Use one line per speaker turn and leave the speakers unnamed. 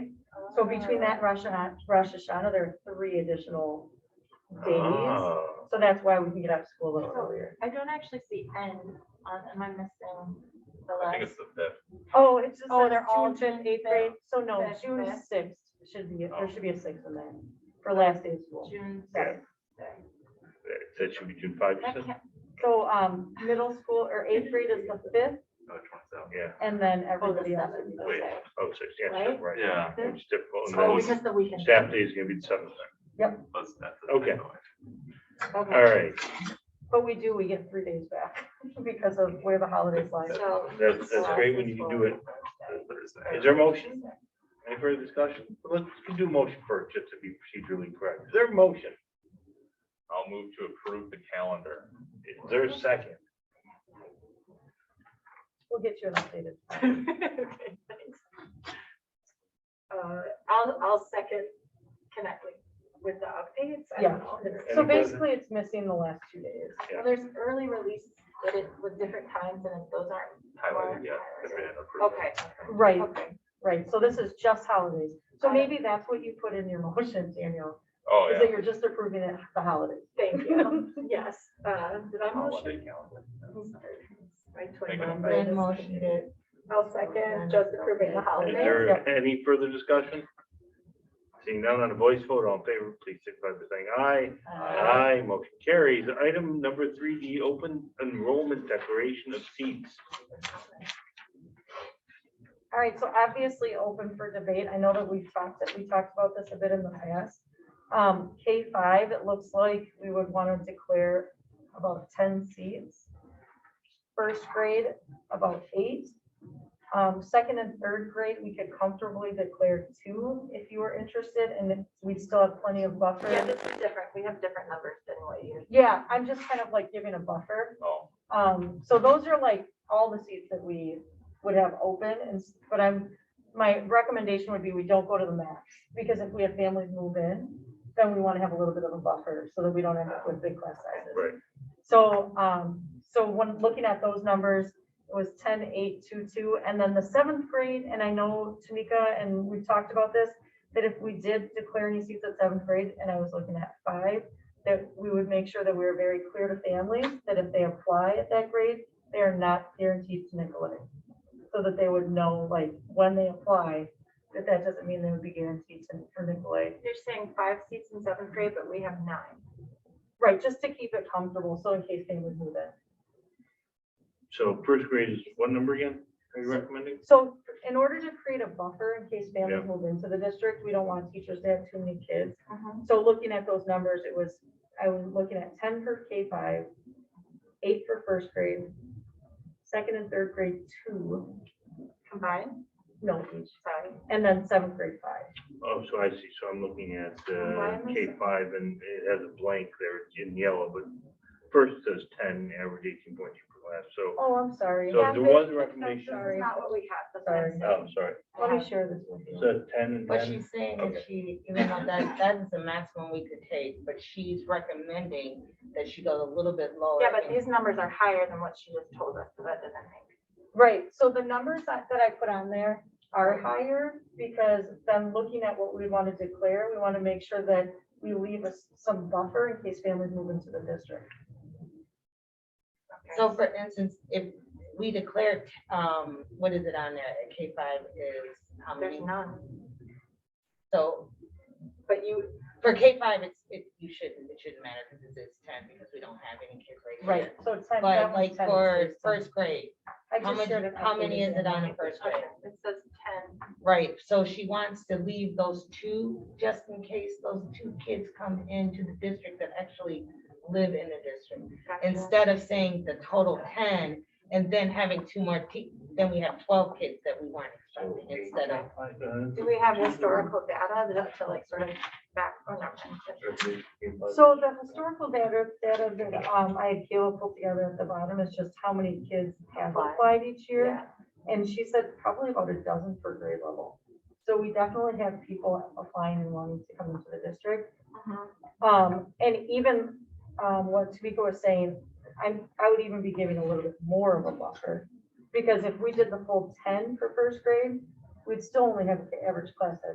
So between that and Rosh Hashanah, Rosh Hashanah, there are three additional days.
Ah,
So that's why we can get out of school a little earlier.
I don't actually see N on, am I missing the
I think
last?
it's the fifth.
Oh, it's just.
Oh,
says
they're all
June fifth,
June
eighth grade. So no,
fifth,
June
fifth.
sixth should be, there should be a sixth in there for last day of school.
June
Right.
sixth. Sorry.
That should be June five, you
That
said?
can't-
So, um, middle school or eighth grade is the fifth
No, twenty-seven, yeah.
and then
Oh, the
everybody else.
seventh,
Wait,
okay.
oh, six, yeah, sure, right.
Yeah.
It's difficult. and
Oh,
then
because the weekend.
Staff day is gonna be the seventh.
let's- that's the
Okay.
takeaway.
All right,
But we do, we get three days back because of where the holidays lie.
So.
that's, that's great when you can do it.
That's Thursday.
Is there a motion? Any further discussion? Let's we can do a motion first, just to be procedurally correct. Is there a motion?
I'll move to approve the calendar.
Is there a second?
We'll get you an updated.
Okay, thanks. Uh, I'll, I'll second connect with, with the updates. I
Yeah.
don't know. There's-
So
Any further-
basically, it's missing the last two days.
Yeah.
Well, there's early release, but it with different times and those aren't.
Highlighted,
marked.
yeah. they've been approved.
Okay,
Right,
okay.
right. So this is just holidays. So
Got it.
maybe that's what you put in your motion, Daniel,
Oh,
is that
yeah.
you're just approving it the holidays.
Thank you. Yes. Uh, did I
Holiday
motion?
calendar.
I'm sorry. My
Make a
twin.
motion.
motioned it. I'll second, just approving the
Is
holiday.
there any further discussion? Seeing none on a voice vote, all in favor, please signify by saying aye. Aye, motion carries. Item number three, the open enrollment declaration of seats.
All right, so obviously open for debate. I know that we've talked, that we talked about this a bit in the past. Um, K five, it looks like we would want to declare about ten seats. First grade, about eight. Um, second and third grade, we could comfortably declare two if you were interested, and then we'd still have plenty of
Yeah,
buffer.
this is different. We have different numbers than what you.
Yeah, I'm just kind of like giving a buffer.
Oh,
Um, so those are like all the seats that we would have open and, s- but I'm, my recommendation would be we don't go to the max. Because if we have families move in, then we want to have a little bit of a buffer so that we don't end up with big class sizes.
Right.
So, um, so when looking at those numbers, it was ten, eight, two, two, and then the seventh grade, and I know Tamika, and we've talked about this, that if we did declare any seats at seventh grade, and I was looking at five, that we would make sure that we were very clear to families that if they apply at that grade, they are not guaranteed to Nicolay. So that they would know, like, when they apply, that that doesn't mean they would be guaranteed to, for Nicolay.
You're saying five seats in seventh grade, but we have nine.
Right, just to keep it comfortable, so in case they would move in.
So first grade is what number again? Are you recommending?
So in order to create a buffer in case
Yeah.
families move into the district, we don't want teachers to have too many kids. So looking at those numbers, it was, I was looking at ten for K five, eight for first grade, second and third grade, two,
Combined,
no each,
sorry.
and then seventh grade five.
Oh, so I see. So I'm looking at uh,
Why am I
K five and it has a blank there It's in yellow, but first says ten, average eighteen point two per class. So,
Oh, I'm sorry.
so
yeah,
there
but-
was a
That's
recommendation.
sorry.
not what we have. that's what
Sorry.
I'm saying.
Oh, sorry.
Let me share this with
It
you.
says ten and
But
ten.
she's saying that
Okay.
she, even though that, that is the maximum we could take, but she's recommending that she goes a little bit lower.
Yeah, but
and-
these numbers are higher than what she just told us, so that doesn't make.
Right, so the numbers that, that I put on there are higher because then looking at what we want to declare, we want to make sure that we leave us some buffer in case families move into the district.
okay.
So for instance, if we declare, um, what is it on there, K five is how
There's
many?
none,
So
but you,
for K five, it's, it, you shouldn't, it shouldn't matter because it's ten, because we don't have any kids right now.
Right, so it's time. that
But
one's
like
time
for
to-
first grade,
I
how
just
much-
shared it
how many
updated
is it on
in
a first grade?
okay, it says ten.
Right, so she wants to leave those two, just in case those two kids come into the district that actually live in the district.
Gotcha.
Instead of saying the total ten, and then having two more, te- then we have twelve kids that we weren't expecting instead of,
Do we have historical data that to like sort of back, oh, never mind.
So the historical data, data that, um, I had Kayla put together at the bottom is just how many kids have
Applied.
applied each year.
Yeah,
And she said probably about a dozen per grade level. So we definitely have people applying and wanting to come into the district.
mhm.
Um, and even, um, what Tamika was saying, I'm, I would even be giving a little bit more of a buffer. Because if we did the full ten for first grade, we'd still only have the average class size